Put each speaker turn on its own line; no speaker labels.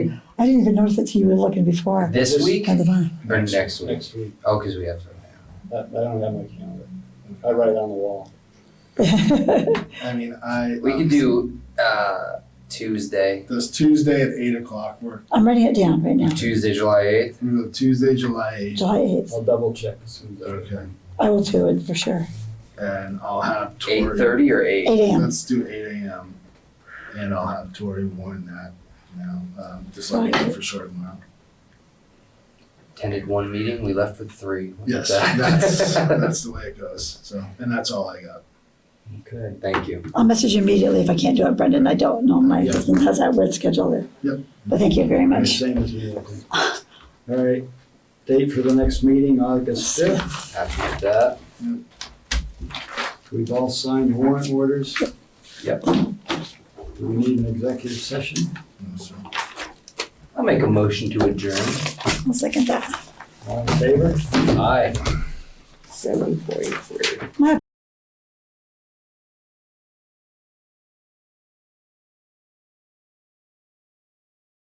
I didn't even notice that you were looking before.
This
This-
week
At the
or
barn.
next week?
Next week.
Oh, because we have to.
I, I don't have my calendar. I write it on the wall.
I mean, I.
We could do uh, Tuesday,
This Tuesday at eight o'clock, we're,
I'm writing it down right now,
Tuesday, July eighth.
we're Tuesday, July eighth.
July 8th.
I'll double check as soon as I.
Okay,
I will do it for sure.
and I'll have Tori.
Eight thirty or eight?
8 a.m.
Let's do eight AM, and I'll have Tori warn that now, um, just like we did for short tomorrow.
Attended one meeting. We left with three. Look at
Yes,
that.
that's, that's the way it goes, so, and that's all I got.
Okay.
Thank you.
I'll message you immediately if I can't do it, Brendan. I don't know. My
Yeah.
husband has that weird schedule there.
Yep.
But thank you very
Alright,
much.
Same as you. I think. All right, date for the next meeting, August fifth.
Happy with that.
We've all signed warrant orders.
Yep.
Do we need an executive session?
So,
I'll make a motion to adjourn.
I'll second that.
All in favor?
Aye.
743.